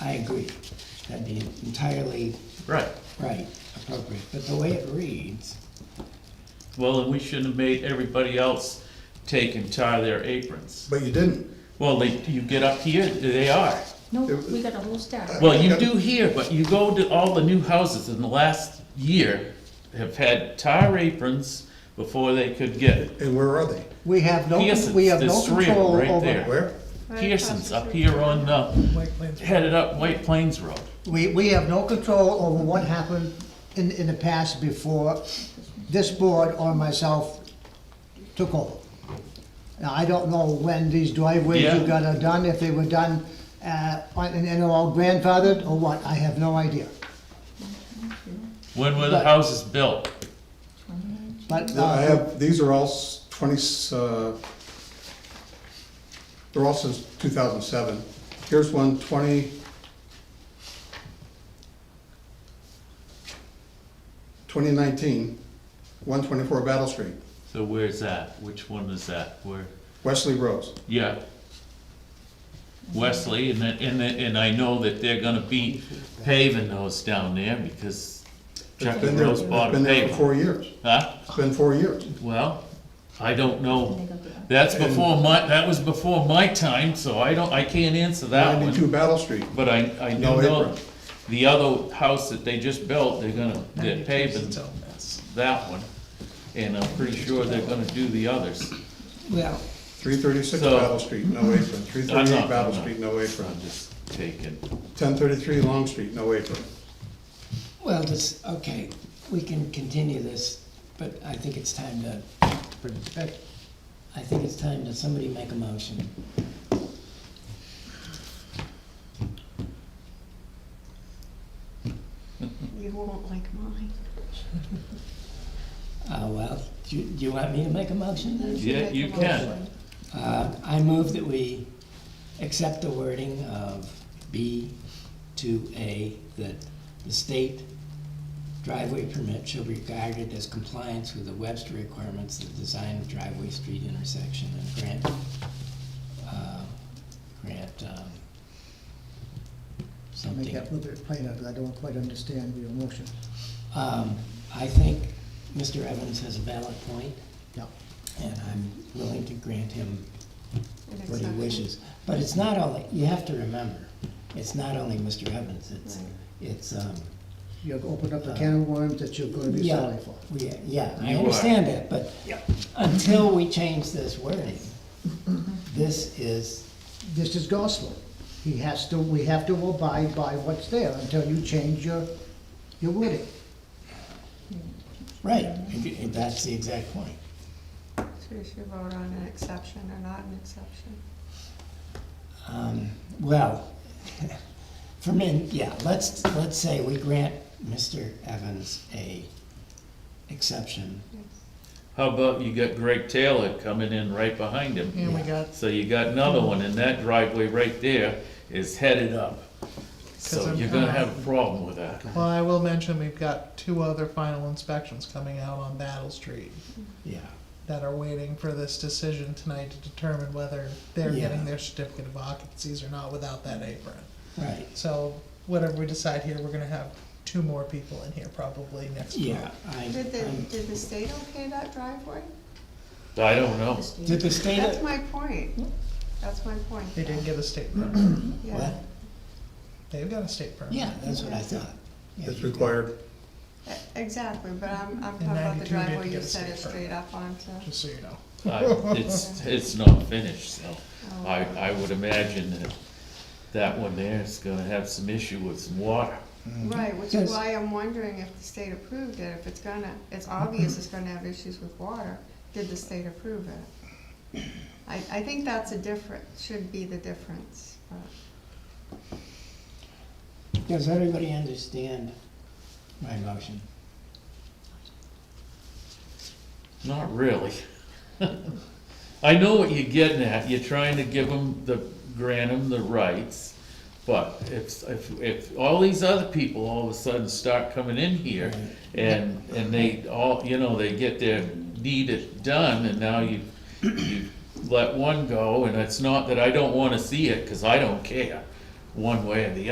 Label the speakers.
Speaker 1: I agree. That'd be entirely
Speaker 2: Right.
Speaker 1: right, appropriate, but the way it reads,
Speaker 2: Well, and we shouldn't have made everybody else take and tie their aprons.
Speaker 3: But you didn't.
Speaker 2: Well, they, you get up here, they are.
Speaker 4: No, we got a whole stack.
Speaker 2: Well, you do here, but you go to all the new houses in the last year have had tar aprons before they could get
Speaker 3: And where are they?
Speaker 5: We have no,
Speaker 2: Pearson's.
Speaker 5: we have no
Speaker 2: There's three of them
Speaker 5: control
Speaker 2: right
Speaker 5: over.
Speaker 2: there.
Speaker 3: Where?
Speaker 2: Pearson's up here on, uh, headed up White Plains Road.
Speaker 5: We, we have no control over what happened in, in the past before this board or myself took over. Now, I don't know when these driveways
Speaker 2: Yeah.
Speaker 5: you got are done, if they were done, uh, on- and, and all grandfathered or what, I have no idea.
Speaker 2: When were the
Speaker 5: But-
Speaker 2: houses built?
Speaker 5: But,
Speaker 3: I
Speaker 5: uh,
Speaker 3: have, these are all s- twenty, s- uh, they're all since two thousand seven. Here's one, twenty. Twenty nineteen, one twenty-four Battle Street,
Speaker 2: So where's that? Which one is that? Where?
Speaker 3: Wesley Rose.
Speaker 2: Yeah. Wesley, and then, and then, and I know that they're gonna be paving those down there because
Speaker 3: It's
Speaker 2: Chuck and
Speaker 3: been there,
Speaker 2: Rose
Speaker 3: it's
Speaker 2: bought a
Speaker 3: been there for
Speaker 2: paver.
Speaker 3: four years.
Speaker 2: Huh?
Speaker 3: It's been four years.
Speaker 2: Well, I don't know. That's before my, that was before my time, so I don't, I can't answer that
Speaker 3: Ninety-two
Speaker 2: one.
Speaker 3: Battle Street.
Speaker 2: But I, I do
Speaker 3: No
Speaker 2: know
Speaker 3: apron.
Speaker 2: the other house that they just built, they're gonna, they're paving that one. And I'm pretty sure they're gonna do the others.
Speaker 1: well,
Speaker 3: Three thirty-six
Speaker 2: So-
Speaker 3: Battle Street, no apron. Three
Speaker 2: I'm
Speaker 3: thirty-eight
Speaker 2: not-
Speaker 3: Battle
Speaker 2: I'm not.
Speaker 3: Street, no apron.
Speaker 2: I'm just taking,
Speaker 3: Ten thirty-three Long Street, no apron.
Speaker 1: well, this, okay, we can continue this, but I think it's time to, I think it's time to somebody make a motion.
Speaker 6: You won't like mine.
Speaker 1: Uh, well, do you, do you want me to make a motion then?
Speaker 2: yeah, you can.
Speaker 1: Uh, I move that we accept the wording of B to A, that the state driveway permit shall be regarded as compliance with the Webster requirements of design of driveway street intersection and grant, uh, grant, um, something.
Speaker 5: make that a little bit plainer, because I don't quite understand your motion.
Speaker 1: Um, I think Mr. Evans has a valid point,
Speaker 5: Yeah.
Speaker 1: and I'm willing to grant him what he wishes. But it's not only, you have to remember, it's not only Mr. Evans, it's,
Speaker 6: Right.
Speaker 1: it's, um,
Speaker 5: You've opened up a can of worms that you're gonna be
Speaker 1: yeah,
Speaker 5: sorry for.
Speaker 1: we- yeah, I
Speaker 2: You are.
Speaker 1: understand that, but until we change this wording, this is,
Speaker 5: This is gospel. He has to, we have to abide by what's there until you change your, your wording.
Speaker 1: right, and- and that's the exact point.
Speaker 6: So you should vote on an exception or not an exception.
Speaker 1: Um, well, for me, yeah, let's, let's say we grant Mr. Evans a exception.
Speaker 2: How about you got Greg Taylor coming in right behind him?
Speaker 1: And we got-
Speaker 2: So you got another one, and that driveway right there is headed up. So
Speaker 7: I'm-
Speaker 2: you're gonna have a problem with that.
Speaker 7: Well, I will mention, we've got two other final inspections coming out on Battle Street
Speaker 1: Yeah.
Speaker 7: that are waiting for this decision tonight to determine whether they're
Speaker 1: Yeah.
Speaker 7: getting their certificate of occupancies or not without that apron.
Speaker 1: Right,
Speaker 7: So whatever we decide here, we're gonna have two more people in here probably next month.
Speaker 1: yeah, I,
Speaker 6: Did the,
Speaker 7: Um,
Speaker 1: I'm-
Speaker 6: did the state okay that driveway?
Speaker 2: I don't know.
Speaker 1: did the state?
Speaker 6: That's my point. That's my point.
Speaker 7: They didn't get a state permit.
Speaker 6: Yeah.
Speaker 1: What?
Speaker 7: They've got a state permit.
Speaker 1: Yeah, that's what I thought. Yeah,
Speaker 3: It's
Speaker 1: you did.
Speaker 3: required.
Speaker 6: E- Exactly, but I'm, I'm
Speaker 7: In
Speaker 6: talking about
Speaker 7: 92
Speaker 6: the
Speaker 7: did
Speaker 6: driveway
Speaker 7: get
Speaker 6: you
Speaker 7: a
Speaker 6: set it
Speaker 7: state
Speaker 6: straight up onto.
Speaker 7: Just so you know.
Speaker 2: I- It's, it's not finished, so I, I would imagine that that one there is gonna have some issue with some water.
Speaker 6: Oh, Right, which
Speaker 1: Yes.
Speaker 6: is why I'm wondering if the state approved it, if it's gonna, it's obvious it's gonna have issues with water, did the state approve it? I, I think that's a different, should be the difference, but,
Speaker 1: Does everybody understand my motion?
Speaker 2: Not really. I know what you're getting at, you're trying to give them the, grant them the rights, but if, if, if all these other people all of a sudden start coming in here, and, and they all, you know, they get their need it done, and now you, you let one go, and it's not that I don't wanna see it, cause I don't care, one way or the other.